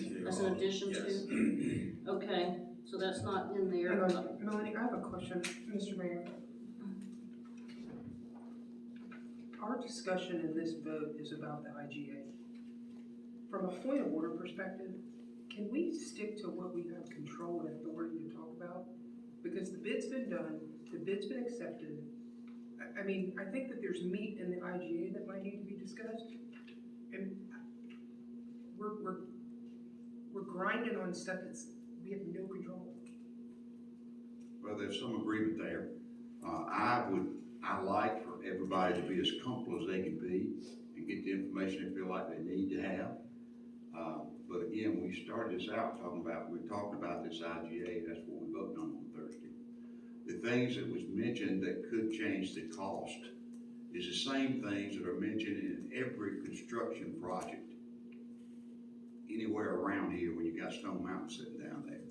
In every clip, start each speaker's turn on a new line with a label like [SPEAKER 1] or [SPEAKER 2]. [SPEAKER 1] in addition
[SPEAKER 2] Yes.
[SPEAKER 1] to? Okay, so that's not in there.
[SPEAKER 3] Hang on, Melanie, I have a question, Mr. Mayor. Our discussion in this vote is about the IGA. From a point of order perspective, can we stick to what we have control and authority to talk about? Because the bid's been done, the bid's been accepted. I, I mean, I think that there's meat in the IGA that might need to be discussed. And we're, we're, we're grinding on stuff that's, we have no control.
[SPEAKER 2] Well, there's some agreement there. Uh, I would, I like for everybody to be as comfortable as they can be and get the information they feel like they need to have. Uh, but again, we started this out talking about, we talked about this IGA, that's what we voted on on Thursday. The things that was mentioned that could change the cost is the same things that are mentioned in every construction project anywhere around here when you got Stone Mountain sitting down there.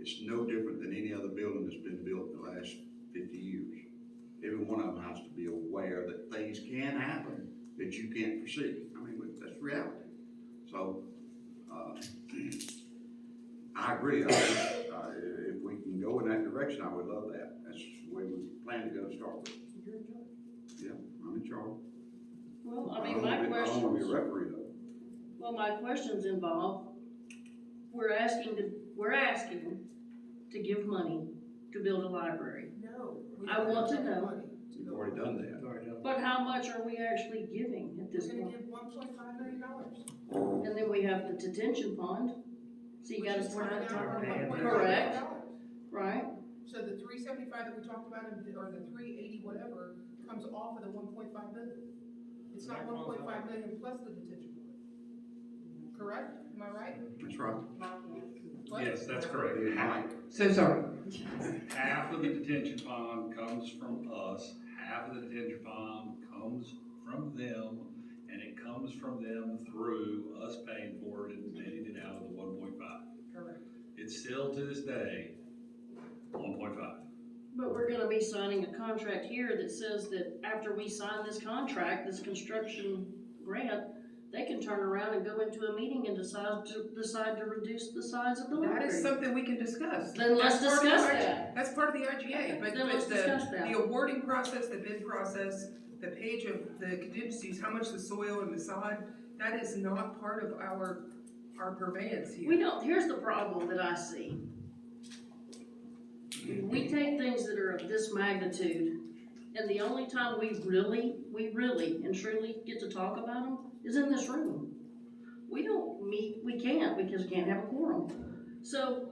[SPEAKER 2] It's no different than any other building that's been built in the last fifty years. Every one of them has to be aware that things can happen that you can't foresee. I mean, but that's reality. So, uh, I agree. I, uh, if we can go in that direction, I would love that. That's the way we plan to go to start with.
[SPEAKER 3] You're in charge.
[SPEAKER 2] Yeah, I'm in charge.
[SPEAKER 1] Well, I mean,
[SPEAKER 2] don't
[SPEAKER 1] my
[SPEAKER 2] wanna be- I don't wanna be a
[SPEAKER 1] questions,
[SPEAKER 2] referee though.
[SPEAKER 1] well, my questions involve, we're asking to, we're asking to give money to build a library.
[SPEAKER 3] No.
[SPEAKER 1] I want to know.
[SPEAKER 2] We've already done that.
[SPEAKER 1] But how much are we actually giving at this
[SPEAKER 3] We're gonna
[SPEAKER 1] point?
[SPEAKER 3] give one point five million dollars.
[SPEAKER 1] And then we have the detention pond. So you gotta,
[SPEAKER 3] We're not talking about $1.5 million.
[SPEAKER 1] Correct. right?
[SPEAKER 3] So the three seventy-five that we talked about, in- or the three eighty, whatever, comes off of the one point five million. It's not one point five million plus the detention pond. Correct? Am I right?
[SPEAKER 2] That's right.
[SPEAKER 3] What?
[SPEAKER 4] Yes, that's correct.
[SPEAKER 2] You're
[SPEAKER 4] Half-
[SPEAKER 2] right.
[SPEAKER 3] So sorry.
[SPEAKER 4] Half of the detention pond comes from us, half of the detention pond comes from them, and it comes from them through us paying for it and netting it out of the one point five.
[SPEAKER 3] Correct.
[SPEAKER 4] It's still to this day, one point five.
[SPEAKER 1] But we're gonna be signing a contract here that says that after we sign this contract, this construction grant, they can turn around and go into a meeting and decide to, decide to reduce the size of the
[SPEAKER 3] That is
[SPEAKER 1] library.
[SPEAKER 3] something we can discuss.
[SPEAKER 1] Then let's
[SPEAKER 3] That's part of
[SPEAKER 1] discuss
[SPEAKER 3] the IG
[SPEAKER 1] that.
[SPEAKER 3] That's part of the IGA, but,
[SPEAKER 1] Then let's
[SPEAKER 3] but
[SPEAKER 1] discuss
[SPEAKER 3] the,
[SPEAKER 1] that.
[SPEAKER 3] the awarding process, the bid process, the page of the contingencies, how much the soil and the sod, that is not part of our, our purveyance
[SPEAKER 1] We
[SPEAKER 3] here.
[SPEAKER 1] don't, here's the problem that I see. We take things that are of this magnitude, and the only time we really, we really and truly get to talk about them is in this room. We don't meet, we can't, because we can't have a quorum. So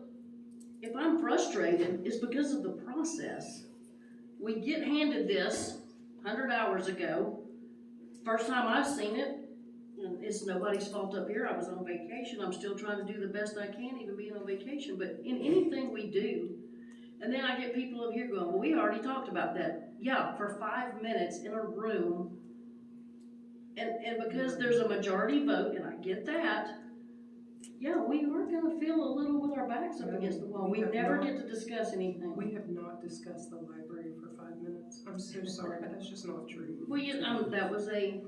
[SPEAKER 1] if I'm frustrated, it's because of the process. We get handed this hundred hours ago, first time I've seen it, and it's nobody's fault up here, I was on vacation, I'm still trying to do the best I can, even being on vacation, but in anything we do, and then I get people up here going, well, we already talked about that, yeah, for five minutes in a room, and, and because there's a majority vote, and I get that, yeah, we were gonna feel a little with our backs up against the wall, we never get to discuss anything.
[SPEAKER 3] We have not discussed the library for five minutes. I'm so sorry, but that's just not true.
[SPEAKER 1] Well, you, um, that was a,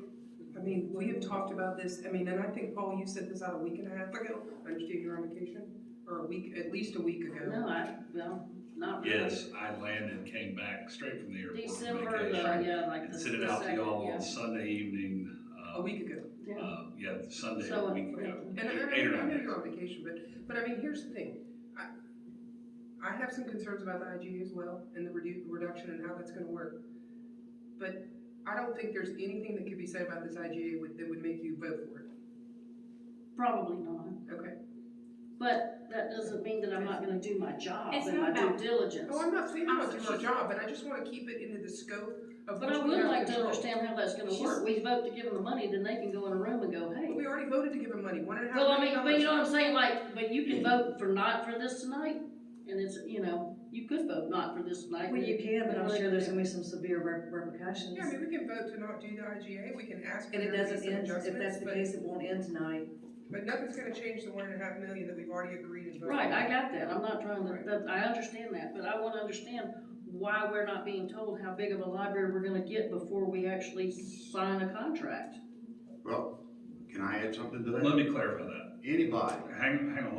[SPEAKER 3] I mean, we have talked about this, I mean, and I think, Paul, you said this out a week and a half ago. I understand you're on vacation, or a week, at least a week ago.
[SPEAKER 1] no, I, well, not really.
[SPEAKER 4] Yes, I landed, came back straight from the airport. from
[SPEAKER 1] December, the-
[SPEAKER 4] vacation,
[SPEAKER 1] yeah, like the.
[SPEAKER 4] And sent it
[SPEAKER 1] the
[SPEAKER 4] out to
[SPEAKER 1] second,
[SPEAKER 4] y'all
[SPEAKER 1] yeah.
[SPEAKER 4] on Sunday evening,
[SPEAKER 3] A
[SPEAKER 4] uh,
[SPEAKER 3] week ago.
[SPEAKER 1] Yeah.
[SPEAKER 4] uh, yeah, Sunday,
[SPEAKER 1] So,
[SPEAKER 4] a week ago.
[SPEAKER 3] And I,
[SPEAKER 4] Eight or
[SPEAKER 3] I
[SPEAKER 4] nine
[SPEAKER 3] know
[SPEAKER 4] days.
[SPEAKER 3] you're on vacation, but, but I mean, here's the thing, I, I have some concerns about the IGA as well, and the redu- reduction and how that's gonna work. But I don't think there's anything that could be said about this IGA would, that would make you vote for it,
[SPEAKER 1] Probably not,
[SPEAKER 3] okay?
[SPEAKER 1] but that doesn't mean that I'm not gonna do my job
[SPEAKER 5] It's
[SPEAKER 1] and my
[SPEAKER 5] not
[SPEAKER 1] due
[SPEAKER 5] about-
[SPEAKER 1] diligence.
[SPEAKER 3] Oh, I'm not saying about doing our job, but I just wanna keep it into the scope of
[SPEAKER 1] But I
[SPEAKER 3] what we
[SPEAKER 1] would
[SPEAKER 3] have
[SPEAKER 1] like to
[SPEAKER 3] control.
[SPEAKER 1] understand how that's gonna work, we vote to give them the money, then they can go in a room and go,
[SPEAKER 3] But
[SPEAKER 1] hey.
[SPEAKER 3] We already voted to give them money, one and a half
[SPEAKER 1] Well, I
[SPEAKER 3] million
[SPEAKER 1] mean,
[SPEAKER 3] dollars.
[SPEAKER 1] but you know what I'm saying, like, but you can vote for not for this tonight, and it's, you know, you could vote not for this tonight.
[SPEAKER 6] Well, you can, but I'm sure there's gonna be some severe rep- repercussions.
[SPEAKER 3] Yeah, I mean, we can vote to not do the IGA, we can ask for
[SPEAKER 6] And it
[SPEAKER 3] there to be
[SPEAKER 6] doesn't
[SPEAKER 3] some
[SPEAKER 6] end,
[SPEAKER 3] adjustments,
[SPEAKER 6] if that's the
[SPEAKER 3] but-
[SPEAKER 6] case, it won't end tonight.
[SPEAKER 3] But nothing's gonna change the one and a half million that we've already agreed and voted.
[SPEAKER 1] Right, I got that, I'm not trying to, that, I understand that, but I wanna understand why we're not being told how big of a library we're gonna get before we actually sign a contract.
[SPEAKER 2] Well, can I add something to that?
[SPEAKER 4] Let me clarify that.
[SPEAKER 2] Anybody
[SPEAKER 4] Hang, hang on, let me